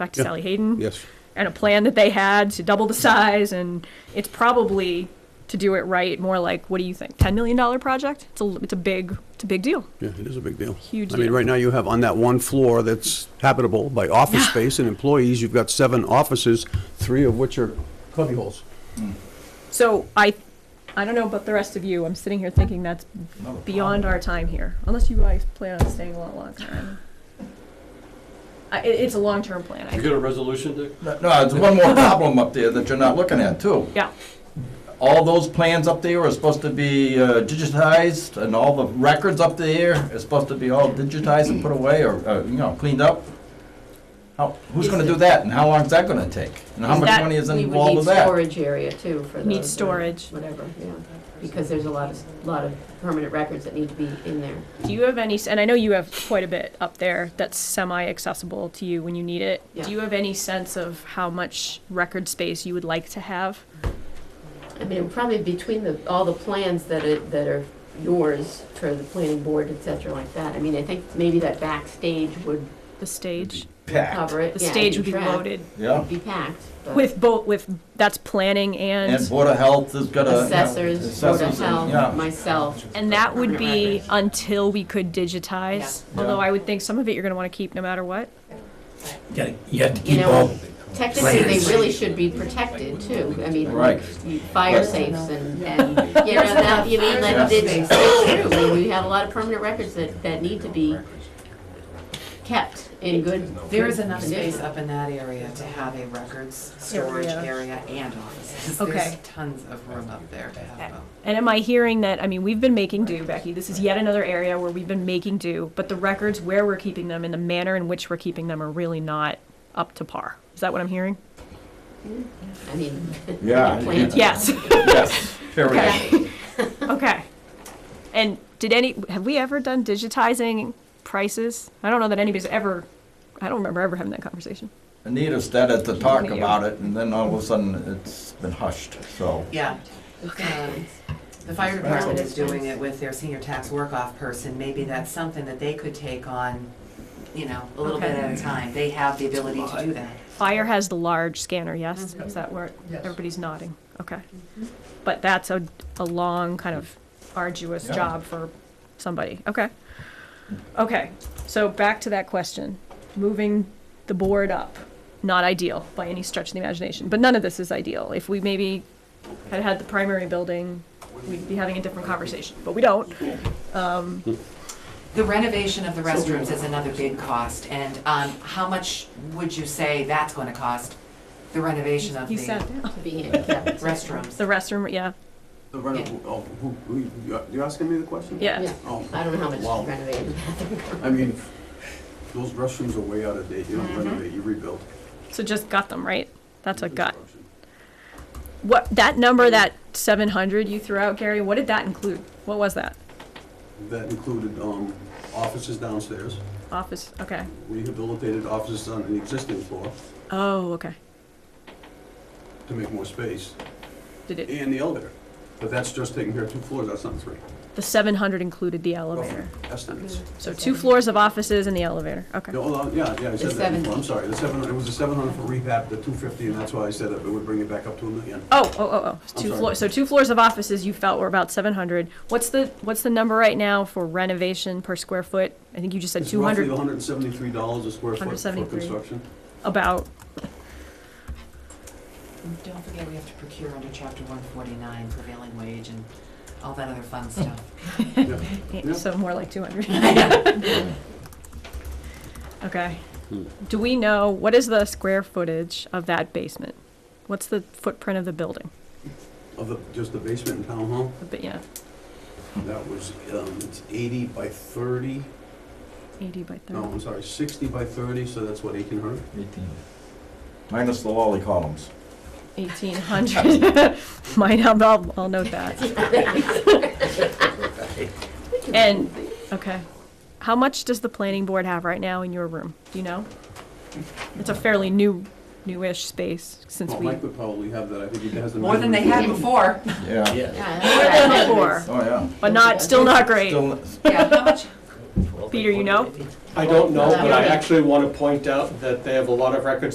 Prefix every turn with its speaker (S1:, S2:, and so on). S1: back to Sally Hayden.
S2: Yes.
S1: and a plan that they had to double the size and it's probably to do it right more like what do you think 10 million dollar project it's a it's a big it's a big deal
S2: Yeah, it is a big deal.
S1: Huge
S2: I mean,
S1: deal.
S2: right now you have on that one floor that's habitable by office space and employees, you've got seven offices, three of which are cubbyholes.
S1: so i i don't know about the rest of you i'm sitting here thinking that's beyond our time here unless you guys plan on staying a lot longer I don't- I, it, it's a long-term plan I
S3: You
S1: think.
S3: got a resolution, Dick?
S4: No, there's one more problem up there that you're not looking at, too.
S1: yeah
S4: All those plans up there are supposed to be uh, digitized, and all the records up there are supposed to be all digitized and put away, or, uh, you know, cleaned up. How, who's gonna do that, and how long's that gonna take? And how
S1: Is
S4: much
S1: that-
S4: money is
S5: We would
S4: involved
S5: need
S4: with that?
S5: storage area too for those.
S1: Need
S5: or
S1: storage.
S5: Whatever, yeah, because there's a lot of, lot of permanent records that need to be in there.
S1: do you have any s- and i know you have quite a bit up there that's semi-accessible to you when you need it
S5: Yeah.
S1: do you have any sense of how much record space you would like to have
S5: I mean, probably between the, all the plans that are, that are yours for the planning board, et cetera, like that. I mean, I think maybe that backstage would
S1: the stage
S4: Packed,
S5: cover it.
S1: the
S5: Yeah,
S1: stage would be
S5: track.
S1: loaded
S4: yeah.
S5: Be packed. but-
S1: with both with that's planning and
S4: And
S1: and,
S4: Board of Health has got a.
S5: Assessors, Board of Health, myself.
S1: that would be
S5: Permanent records.
S1: until we could digitize.
S4: Yeah.
S1: Although
S4: Yeah.
S1: I would think some of it you're going to want to keep no matter what.
S6: Yeah, You have to
S5: You
S6: keep all,
S5: know, technically, they really should be protected too. I mean,
S4: Right.
S5: you- fire safes and, and, you know, that, you mean, that it's it's true. I mean, We have a lot of permanent records that, that need to be kept in good.
S7: There is enough
S5: condition.
S7: space up in that area to have a records storage area and offices.
S1: Okay.
S7: There's tons of room up there to have both.
S1: And am I hearing that? I mean, we've been making do, Becky. This is yet another area where we've been making do, but the records where we're keeping them and the manner in which we're keeping them are really not up to par. Is that what I'm hearing?
S5: I mean.
S4: Yeah.
S5: plans.
S1: Yes.
S4: Yes, period.
S1: okay. And did any have we ever done digitizing prices? I don't know that anybody's ever. I don't remember ever having that conversation.
S4: Anita started to talk
S1: Anita.
S4: about it, and then all of a sudden, it's been hushed, so.
S7: Yeah. Um, The fire department is doing it with their senior tax work-off person. Maybe that's something that they could take on, you know, a little bit at a time. They have the ability to do that.
S1: Fire has the large scanner, yes? Is that where, everybody's nodding, okay. But that's a, a long, kind of arduous
S4: Yeah.
S1: job for somebody, okay. Okay, so back to that question, moving the board up, not ideal by any stretch of the imagination, but none of this is ideal. If we maybe had had the primary building, we'd be having a different conversation, but we don't.
S7: The renovation of the restrooms is another big cost, and um, how much would you say that's going to cost? The renovation of
S1: He
S7: the
S1: sat down.
S5: Be handicapped.
S7: restrooms?
S1: The restroom, yeah,
S2: The reno- oh, who- who- you- you asking me the question?
S1: yeah.
S5: Yeah,
S2: Oh,
S5: I don't know how
S2: Wow.
S5: much renovated.
S2: I mean, those restrooms are way out of date. You don't renovate, you rebuild.
S1: So just got them, right? That's Mm-hmm. a gut. What that number, that seven hundred you threw out, Gary? What did that include? What was that?
S2: That included um, offices downstairs,
S1: Office. Okay.
S2: rehabilitated offices on an existing floor
S1: Oh, okay.
S2: to make more space,
S1: Did it?
S2: and the elevator. But that's just taking care of two floors, that's not three.
S1: The seven hundred included the elevator.
S2: Roughly Estimates.
S1: So two floors of offices and the elevator. Okay.
S2: No, hold on, yeah, yeah, I said
S5: The
S2: that before,
S5: 700.
S2: I'm sorry, the seven, it was the seven hundred for rehab, the two fifty, and that's why I said that, it would bring it back up to a million.
S1: Oh, oh, oh, oh.
S2: I'm
S1: Two
S2: sorry.
S1: floors. So two floors of offices you felt were about seven hundred. What's the what's the number right now for renovation per square foot? I think you just said
S2: It's
S1: two hundred.
S2: roughly hundred and seventy-three dollars a square foot for
S1: 173.
S2: construction.
S1: About.
S7: Don't forget, we have to procure under chapter one forty-nine prevailing wage and all that other fun stuff.
S2: Yeah. Yeah.
S1: So more like two hundred. Okay. Do we know, what is the square footage of that basement? What's the footprint of the building?
S2: Of the, just the basement and town hall,
S1: A bit, yeah,
S2: that was, um, it's eighty by thirty,
S1: eighty by
S2: no,
S1: thirty.
S2: I'm sorry, sixty by thirty, so that's what, eighteen hundred?
S4: Minus the lolly columns.
S1: Eighteen hundred. Mine, I'll- I'll, I'll note that. And, okay. How much does the planning board have right now in your room? Do you know? It's a fairly new, newish space since
S2: Well,
S1: we.
S2: Mike would probably have that, I think he has the.
S7: More than they had
S2: measurements.
S7: before.
S4: Yeah.
S5: Yeah,
S1: than
S5: that's-
S1: before.
S4: Oh, yeah.
S1: But not, still not great.
S4: Still,
S7: Yeah, how much?
S1: Peter, you know?
S3: I don't know, but I
S5: Yeah.
S3: actually want to point out that they have a lot of records